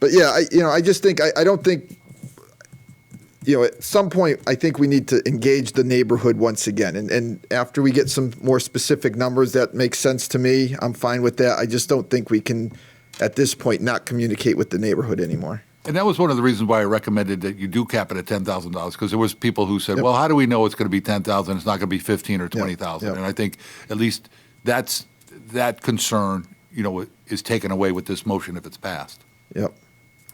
But yeah, I, you know, I just think I, I don't think you know at some point I think we need to engage the neighborhood once again, and and after we get some more specific numbers that make sense to me, I'm fine with that. I just don't think we can at this point not communicate with the neighborhood anymore. And that was one of the reasons why I recommended that you do cap it at ten thousand dollars because there was people who said, "Well, how do we know it's going to be ten thousand? It's not going to be fifteen or twenty thousand. yep. And I think at least that's that concern, you know, is taken away with this motion if it's passed. Yep.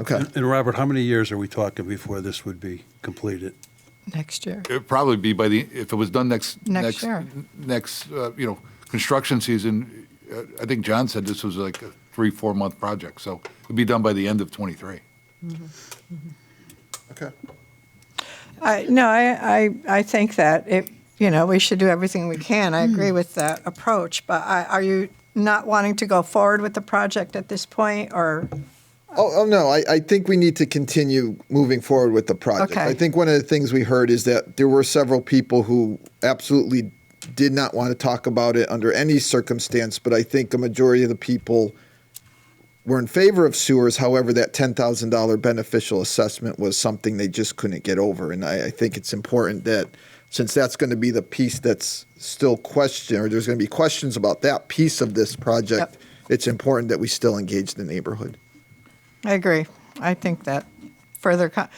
Okay. And, and Robert, how many years are we talking before this would be completed? next year. It'd probably be by the if it was done next Next year. n- next uh, you know construction season. Uh, I think John said this was like a three four month project, so it'd be done by the end of twenty three. Okay. I, no, I, I, I think that it, you know, we should do everything we can. I agree with that approach, but I, are you not wanting to go forward with the project at this point, or? Oh, oh no, I, I think we need to continue moving forward with the project. Okay. I think one of the things we heard is that there were several people who absolutely did not want to talk about it under any circumstance, but I think a majority of the people were in favor of sewers. However, that $10,000 beneficial assessment was something they just couldn't get over. And I, I think it's important that since that's going to be the piece that's still question, or there's going to be questions about that piece of this project, Yep. it's important that we still engage the neighborhood. I agree. I think that further, co-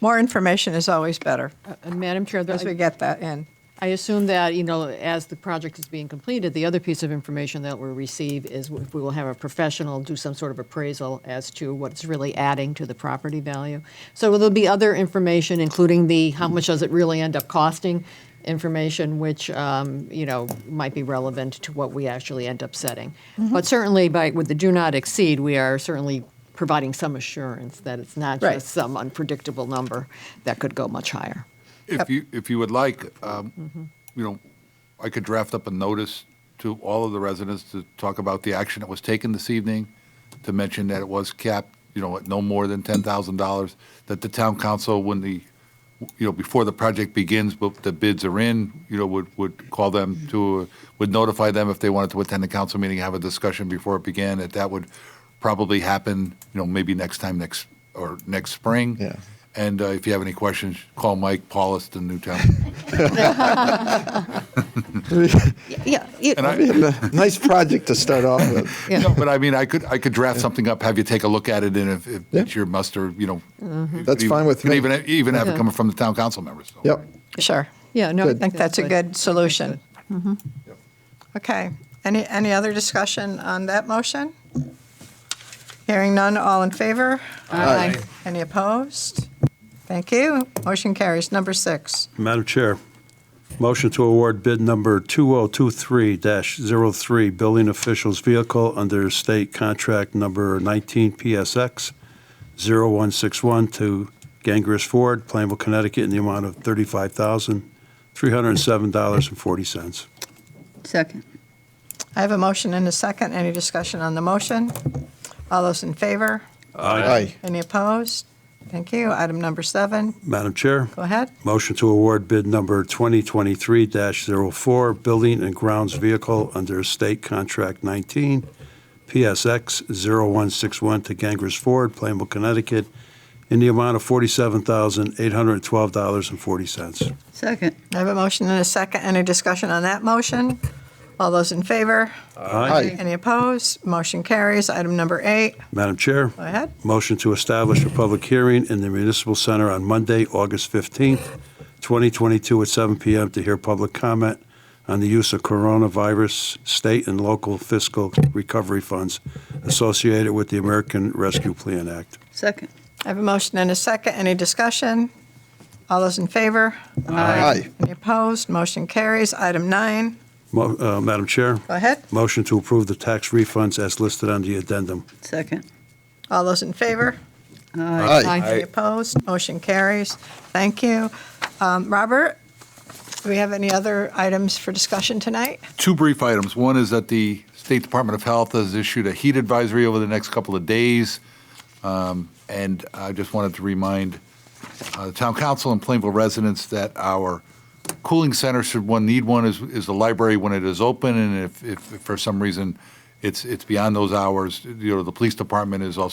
more information is always better And Uh, Madam Chair, as we the- get that in. I assume that, you know, as the project is being completed, the other piece of information that we'll receive is if we will have a professional do some sort of appraisal as to what it's really adding to the property value. So there'll be other information, including the, how much does it really end up costing information, which, um, you know, might be relevant to what we actually end up setting. Mm-hmm. But certainly by, with the do not exceed, we are certainly providing some assurance that it's not Right. just some unpredictable number that could go much higher. If you, if you would like, um, you know, I could draft up a notice to all of the residents to talk about the action that was taken this evening, to mention that it was capped, you know, at no more than ten thousand dollars, that the town council, when the, you know, before the project begins, but the bids are in, you know, would, would call them to, would notify them if they wanted to attend the council meeting, have a discussion before it began, that that would probably happen, you know, maybe next time, next, or next spring. Yeah. And uh, if you have any questions, call Mike Paulus in Newtown. Yeah. And I, nice project to start off with. no, but I mean, I could I could draft something up, have you take a look at it, and if, if Yeah. Mm-hmm. it's your muster, you know, you That's could fine with even, me. Even even have it Okay. coming from the town council members. so. Yep. Sure. Yeah, no, Good. I think that's a good solution. Mm-hmm. Yep. Okay. Any, any other discussion on that motion? Hearing none, all in favor? Aye. Any opposed? Thank you. Motion carries. Number six. Madam Chair, motion to award bid number 2023-03, building officials vehicle under state contract number 19 PSX 0161 to Gangris Ford, Plainville, Connecticut, in the amount of $35,307.40. Second. I have a motion and a second. Any discussion on the motion? All those in favor? Aye. Any opposed? Thank you. Item number seven. Madam Chair. Go ahead. Motion to award bid number 2023-04, Building and Grounds Vehicle under State Contract 19, PSX 0161 to Gangres Ford, Plainville, Connecticut, in the amount of $47,812.40. Second. I have a motion and a second. Any discussion on that motion? All those in favor? Aye. Any opposed? Motion carries. Item number eight. Madam Chair. Go ahead. Motion to establish a public hearing in the Municipal Center on Monday, August 15th, 2022 at 7 p.m. to hear public comment on the use of coronavirus state and local fiscal recovery funds associated with the American Rescue Plan Act. Second. I have a motion and a second. Any discussion? All those in favor? Aye. Any opposed? Motion carries. Item nine. Mo- uh, Madam Chair, Go ahead. motion to approve the tax refunds as listed on the addendum. Second. All those in favor? Aye. Any opposed? Motion carries. Thank you. Um, Robert, do we have any other items for discussion tonight? two brief items. One is that the State Department of Health has issued a heat advisory over the next couple of days. Um, And I just wanted to remind uh, the town council and Plainville residents that our cooling center, should one need one, is, is the library when it is open. And if, if for some reason it's, it's beyond those hours, you know, the police department is also